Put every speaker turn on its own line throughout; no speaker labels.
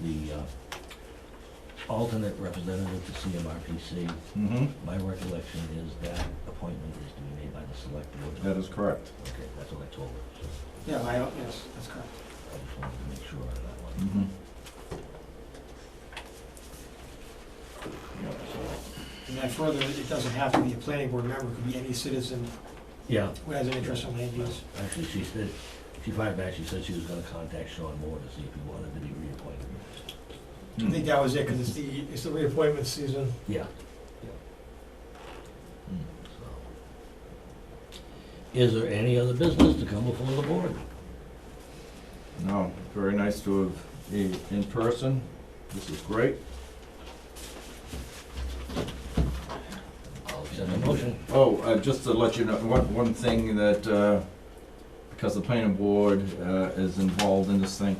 the uh, alternate representative to CMRPC,
Mm-hmm.
my recollection is that appointment is to be made by the select board.
That is correct.
Okay, that's what I told her, so
Yeah, I, yes, that's correct.
I just wanted to make sure on that one.
Mm-hmm.
So,
And then further, it doesn't have to be a planning board member, it could be any citizen
Yeah.
who has an interest in land use.
Actually, she said, she fired back, she said she was gonna contact Sean Moore to see if he wanted to be reappointed.
I think that was it, because it's the, it's the reappointment season.
Yeah,
Mm.
so. Is there any other business to come before the board?
No, very nice to have you in person. This is great.
I'll send a motion.
Oh, uh, just to let you know, one, one thing that, uh, because the planning board, uh, is involved in this thing,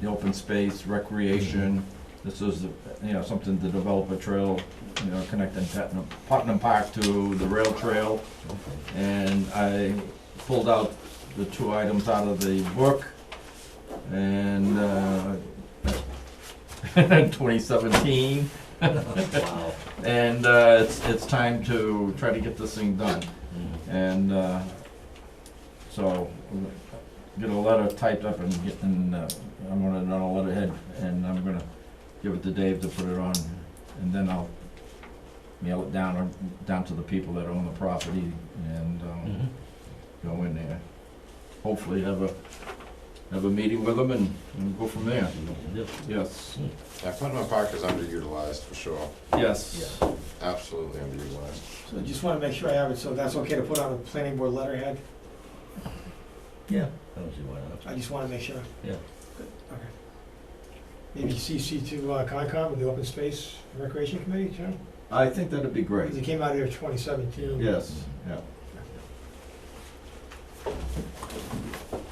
the open space, recreation, this is, you know, something to develop a trail, you know, connecting Putnam, Putnam Park to the rail trail.
Okay.
And I pulled out the two items out of the book, and, uh, twenty seventeen,
Wow.
and, uh, it's, it's time to try to get this thing done.
Mhm.
And uh, so, get a letter typed up and get, and uh, I'm gonna run a letterhead, and I'm gonna give it to Dave to put it on, and then I'll mail it down, or down to the people that own the property, and um,
Mhm.
go in there. Hopefully have a, have a meeting with them and, and go from there.
See what we can do.
Yes,
Yeah, Putnam Park is underutilized for sure,
yes.
absolutely underutilized.
So I just want to make sure I have it, so that's okay to put on a planning board letterhead?
Yeah.
I don't see why not.
I just want to make sure.
Yeah.
Good, Okay. Maybe CC to uh, Concom and the Open Space and Recreation Committee, too?
I think that'd be
Because it
great.
came out here in 2017.
Yes, yeah.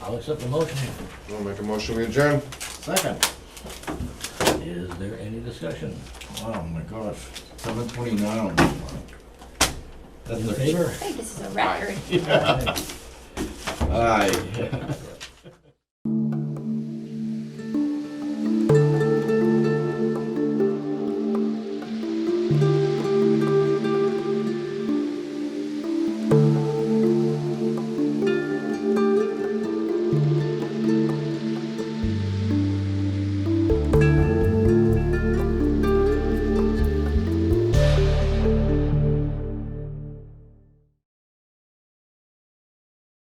I'll accept the motion.
I'll make a motion, we adjourn.
Second.
Is there any discussion?
Oh my gosh, seven twenty-nine. That's
In
the
favor?
I think this is a record.
Aye.
Aye.